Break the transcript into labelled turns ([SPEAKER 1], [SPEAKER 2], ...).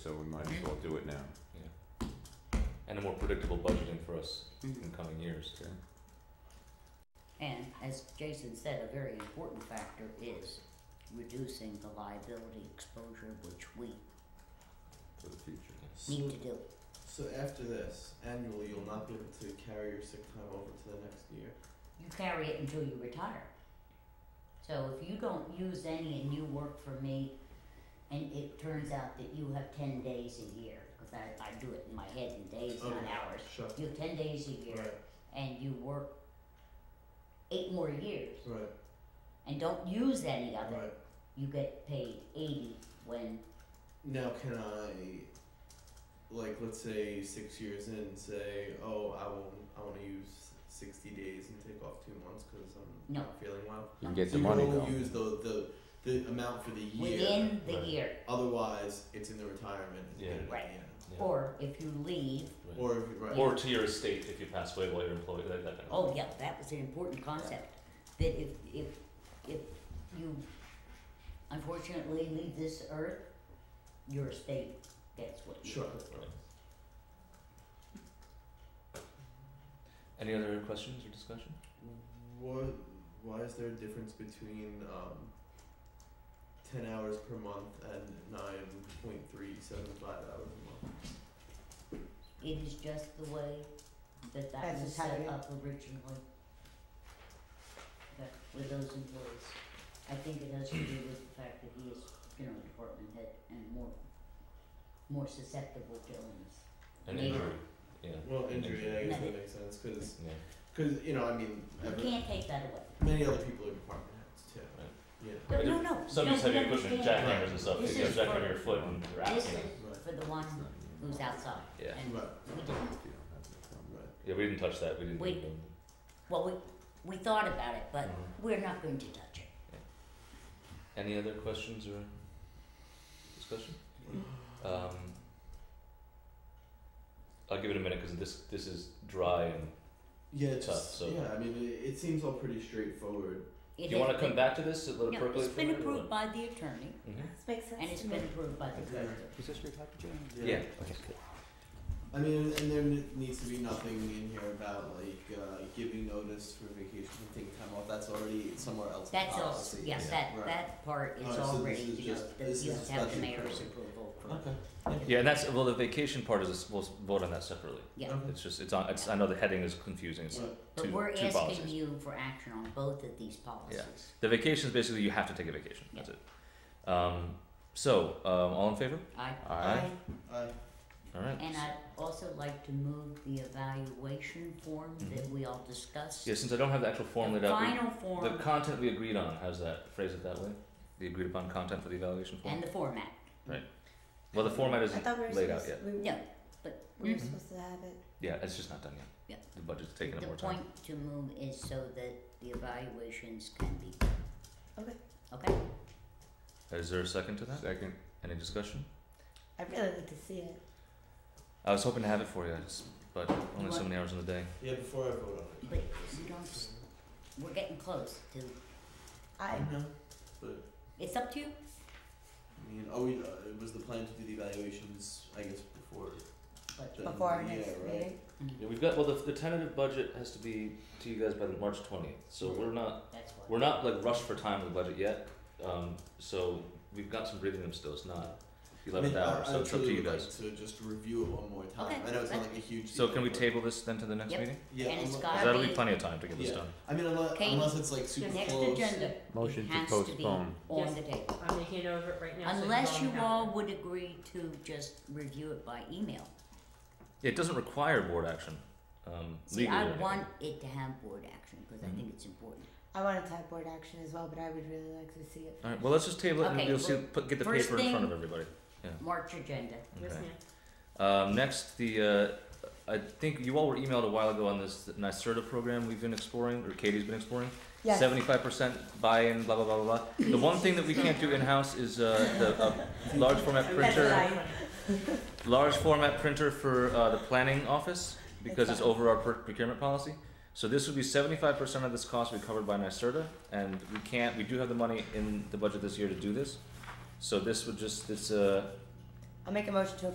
[SPEAKER 1] so we might as well do it now.
[SPEAKER 2] and a more predictable budgeting for us in
[SPEAKER 1] Okay.
[SPEAKER 2] coming years.
[SPEAKER 3] And as Jason said, a very important factor is reducing the liability exposure, which we
[SPEAKER 1] For the future.
[SPEAKER 2] Yes.
[SPEAKER 3] need to do.
[SPEAKER 4] So after this, annually, you'll not be able to carry your sick time over to the next year.
[SPEAKER 3] You carry it until you retire. So if you don't use any and you work for me, and it turns out that you have ten days a year, because I, I do it in my head in days, not
[SPEAKER 4] Okay.
[SPEAKER 3] hours.
[SPEAKER 4] Shut.
[SPEAKER 3] You have ten days a year,
[SPEAKER 4] Right.
[SPEAKER 3] and you work eight more years,
[SPEAKER 4] Right.
[SPEAKER 3] and don't use any of it,
[SPEAKER 4] Right.
[SPEAKER 3] you get paid eighty when
[SPEAKER 4] Now, can I, like, let's say six years in, say, oh, I want, I want to use sixty days and take off two months because I'm
[SPEAKER 3] No.
[SPEAKER 4] not feeling well.
[SPEAKER 1] You can get
[SPEAKER 4] So
[SPEAKER 1] the
[SPEAKER 4] you
[SPEAKER 1] money
[SPEAKER 4] can
[SPEAKER 1] though.
[SPEAKER 4] only use the, the the amount for the year.
[SPEAKER 3] within the
[SPEAKER 2] Right.
[SPEAKER 3] year.
[SPEAKER 4] Otherwise, it's in the retirement. and you
[SPEAKER 2] Yeah.
[SPEAKER 4] get it at the
[SPEAKER 3] Right.
[SPEAKER 4] end.
[SPEAKER 2] Yeah.
[SPEAKER 3] Or if you leave,
[SPEAKER 2] Right.
[SPEAKER 4] Or if you right.
[SPEAKER 2] Or to your estate if you pass away while you're employed. That, that kind of
[SPEAKER 3] oh yeah, that was an important concept, that if, if, if you unfortunately leave this earth, your estate gets what you.
[SPEAKER 4] Sure.
[SPEAKER 2] Any other questions or discussion?
[SPEAKER 4] What? Why is there a difference between um, ten hours per month and nine point three seven five hours a month?
[SPEAKER 3] It is just the way that that
[SPEAKER 5] As
[SPEAKER 3] was
[SPEAKER 5] a
[SPEAKER 3] set
[SPEAKER 5] setting.
[SPEAKER 3] up originally. That, with those employees. I think it has to do with the fact that he is, you know, department head and more, more susceptible to illness.
[SPEAKER 2] An
[SPEAKER 3] Maybe.
[SPEAKER 2] injury. Yeah.
[SPEAKER 4] Well, injury, I guess
[SPEAKER 3] Nothing.
[SPEAKER 4] that makes sense because
[SPEAKER 2] Yeah.
[SPEAKER 4] you know I mean
[SPEAKER 3] You
[SPEAKER 4] every,
[SPEAKER 3] can't take that away.
[SPEAKER 4] many other people are department heads too.
[SPEAKER 2] Right.
[SPEAKER 4] Yeah.
[SPEAKER 3] No,
[SPEAKER 2] But
[SPEAKER 3] no, no.
[SPEAKER 2] Some
[SPEAKER 3] no,
[SPEAKER 2] use heavy
[SPEAKER 3] you
[SPEAKER 2] equipment,
[SPEAKER 3] understand.
[SPEAKER 2] jackhammers and stuff.
[SPEAKER 3] This
[SPEAKER 2] You
[SPEAKER 3] is
[SPEAKER 2] jackhammer
[SPEAKER 3] for-
[SPEAKER 2] your foot and you're out,
[SPEAKER 3] This
[SPEAKER 2] you know.
[SPEAKER 3] is for the one who's outside.
[SPEAKER 2] Yeah.
[SPEAKER 3] And,
[SPEAKER 4] Right.
[SPEAKER 3] we didn't-
[SPEAKER 4] Right.
[SPEAKER 2] Yeah, we didn't touch that. We didn't.
[SPEAKER 3] Wait.
[SPEAKER 2] even-
[SPEAKER 3] well, we, we thought about it, but
[SPEAKER 2] Mhm.
[SPEAKER 3] we're not going to touch it.
[SPEAKER 2] Any other questions or discussion? Um, I'll give it a minute because this this is dry and.
[SPEAKER 4] Yeah.
[SPEAKER 2] Tough,
[SPEAKER 4] Just,
[SPEAKER 2] so-
[SPEAKER 4] Yeah. I mean, it, it seems all pretty straightforward.
[SPEAKER 3] It
[SPEAKER 2] Do you want
[SPEAKER 3] has
[SPEAKER 2] to come
[SPEAKER 3] been-
[SPEAKER 2] back to this? and Let it
[SPEAKER 3] No,
[SPEAKER 2] percolate.
[SPEAKER 3] it's
[SPEAKER 2] for a
[SPEAKER 3] been
[SPEAKER 2] minute or
[SPEAKER 3] approved by
[SPEAKER 2] what?
[SPEAKER 3] the attorney,
[SPEAKER 2] Mhm.
[SPEAKER 5] This makes sense
[SPEAKER 3] and it's
[SPEAKER 5] to
[SPEAKER 3] been
[SPEAKER 5] me.
[SPEAKER 3] approved by the
[SPEAKER 4] Okay.
[SPEAKER 3] director.
[SPEAKER 1] Is this your copy, Jim?
[SPEAKER 2] Yeah.
[SPEAKER 1] Okay.
[SPEAKER 4] I mean, and there needs to be nothing in here about like uh, giving notice for vacation and taking time off. That's already somewhere else. in
[SPEAKER 3] That's all,
[SPEAKER 4] policy.
[SPEAKER 3] yes,
[SPEAKER 2] Yeah.
[SPEAKER 3] that,
[SPEAKER 4] Right.
[SPEAKER 3] that part
[SPEAKER 4] Oh,
[SPEAKER 3] is
[SPEAKER 4] so this
[SPEAKER 3] already,
[SPEAKER 4] is
[SPEAKER 3] you know,
[SPEAKER 4] just-
[SPEAKER 3] that
[SPEAKER 4] this
[SPEAKER 3] you
[SPEAKER 4] is
[SPEAKER 3] have to have the
[SPEAKER 4] special
[SPEAKER 3] mayor's
[SPEAKER 4] permit.
[SPEAKER 3] approval for.
[SPEAKER 4] Okay.
[SPEAKER 2] Yeah, and that's well. The vacation part is a s- we'll s- vote on that separately.
[SPEAKER 3] Yeah,
[SPEAKER 4] Okay.
[SPEAKER 2] It's just it's on. It's, I know the heading is confusing. It's,
[SPEAKER 4] Right.
[SPEAKER 3] but
[SPEAKER 2] two-
[SPEAKER 3] we're
[SPEAKER 2] two
[SPEAKER 3] asking
[SPEAKER 2] policies.
[SPEAKER 3] you for action on both of these policies.
[SPEAKER 2] The vacation is basically you have to take a vacation. That's it. Um, so um, all in favor?
[SPEAKER 3] I,
[SPEAKER 2] Aye.
[SPEAKER 4] Uh,
[SPEAKER 2] All right.
[SPEAKER 3] and I'd also like to move the evaluation form that
[SPEAKER 2] Mm-hmm.
[SPEAKER 3] we all discussed.
[SPEAKER 2] yeah, since I don't have the actual form laid
[SPEAKER 3] The
[SPEAKER 2] out, we-
[SPEAKER 3] final form.
[SPEAKER 2] the content we agreed on. How's that? Phrase it that way. The agreed upon content for the evaluation form.
[SPEAKER 3] And the format.
[SPEAKER 2] well, the format
[SPEAKER 5] I
[SPEAKER 2] isn't
[SPEAKER 5] thought we were
[SPEAKER 2] laid out
[SPEAKER 5] supposed
[SPEAKER 2] yet.
[SPEAKER 5] we,
[SPEAKER 3] No, but
[SPEAKER 5] we were
[SPEAKER 2] Mm-hmm.
[SPEAKER 3] Mhm.
[SPEAKER 5] supposed to have it.
[SPEAKER 2] Yeah, it's just not done yet.
[SPEAKER 3] Yeah.
[SPEAKER 2] The budget's taking up
[SPEAKER 3] the
[SPEAKER 2] more time.
[SPEAKER 3] point to move is so that the evaluations can be.
[SPEAKER 5] Okay.
[SPEAKER 3] Okay,
[SPEAKER 2] Is there a second to that?
[SPEAKER 1] Second.
[SPEAKER 2] Any discussion?
[SPEAKER 5] I really need to see it.
[SPEAKER 2] I was hoping to have it for you, it's- but only so
[SPEAKER 3] What?
[SPEAKER 2] many hours in the day.
[SPEAKER 4] yeah. Before I vote on it.
[SPEAKER 3] but you don't, s- we're getting close to,
[SPEAKER 4] I
[SPEAKER 5] I
[SPEAKER 4] know, but
[SPEAKER 3] it's up to you.
[SPEAKER 4] I mean, oh, we, uh, it was the plan to do the evaluations, I guess, before.
[SPEAKER 3] But-
[SPEAKER 4] the-
[SPEAKER 5] before our
[SPEAKER 4] yeah,
[SPEAKER 5] next
[SPEAKER 4] right.
[SPEAKER 5] meeting.
[SPEAKER 2] Yeah, we've got well the, the tentative budget has to be to you guys by the March twentieth. So we're not
[SPEAKER 3] That's why.
[SPEAKER 2] we're not like rushed for time with the budget yet. Um, so we've got some breathing room still. It's not the eleventh
[SPEAKER 4] I mean,
[SPEAKER 2] hour,
[SPEAKER 4] I,
[SPEAKER 2] so
[SPEAKER 4] I
[SPEAKER 2] it's up to
[SPEAKER 4] truly
[SPEAKER 2] you
[SPEAKER 4] would
[SPEAKER 2] guys.
[SPEAKER 4] Like to just review it one more time.
[SPEAKER 3] Okay,
[SPEAKER 4] I know it's not
[SPEAKER 3] that's-
[SPEAKER 4] like a huge.
[SPEAKER 2] So
[SPEAKER 4] deal,
[SPEAKER 2] can we
[SPEAKER 4] but-
[SPEAKER 2] table this then to the next
[SPEAKER 3] Yep.
[SPEAKER 2] meeting?
[SPEAKER 4] Yeah,
[SPEAKER 3] And it's
[SPEAKER 4] unle-
[SPEAKER 3] got- I
[SPEAKER 2] That'll be
[SPEAKER 3] mean-
[SPEAKER 2] plenty of time to get this
[SPEAKER 4] Yeah.
[SPEAKER 2] done.
[SPEAKER 4] I mean, unless,
[SPEAKER 3] Katie,
[SPEAKER 4] unless it's like super
[SPEAKER 3] The next
[SPEAKER 4] close.
[SPEAKER 3] agenda,
[SPEAKER 1] Motion
[SPEAKER 3] it
[SPEAKER 1] to
[SPEAKER 3] has to be
[SPEAKER 1] postpone.
[SPEAKER 3] on the table,
[SPEAKER 6] I'm making it over right now. so
[SPEAKER 3] unless you
[SPEAKER 6] don't have
[SPEAKER 3] all
[SPEAKER 6] it.
[SPEAKER 3] would agree to just review it by email.
[SPEAKER 2] It doesn't require board action. Um,
[SPEAKER 3] See,
[SPEAKER 2] legally or
[SPEAKER 3] I
[SPEAKER 2] anything.
[SPEAKER 3] want it to have board action, cause I think it's important.
[SPEAKER 5] I want to have board action as well, but I would really like to see it.
[SPEAKER 2] All right. Well, let's just table it
[SPEAKER 3] Okay,
[SPEAKER 2] and you'll see.
[SPEAKER 3] well,
[SPEAKER 2] Put, get the
[SPEAKER 3] first
[SPEAKER 2] paper in front
[SPEAKER 3] thing-
[SPEAKER 2] of everybody.
[SPEAKER 3] March agenda,
[SPEAKER 6] Yes,
[SPEAKER 2] Okay.
[SPEAKER 6] ma'am.
[SPEAKER 2] Um, next, the uh, I think you all were emailed a while ago on this NYSERDA program we've been exploring, or Katie's been exploring.
[SPEAKER 5] Yes.
[SPEAKER 2] Seventy-five percent buy-in, blah blah blah blah blah. The one thing that we can't do in-house is uh, the uh, large format
[SPEAKER 5] That's
[SPEAKER 2] printer,
[SPEAKER 5] fine.
[SPEAKER 2] large format printer for uh, the planning office because it's over our per- procurement policy. So this would be seventy-five percent of this cost would be covered by NYSERDA, and we can't. We do have the money in the budget this year to do this. So this would just it's uh,
[SPEAKER 3] I'll make a motion to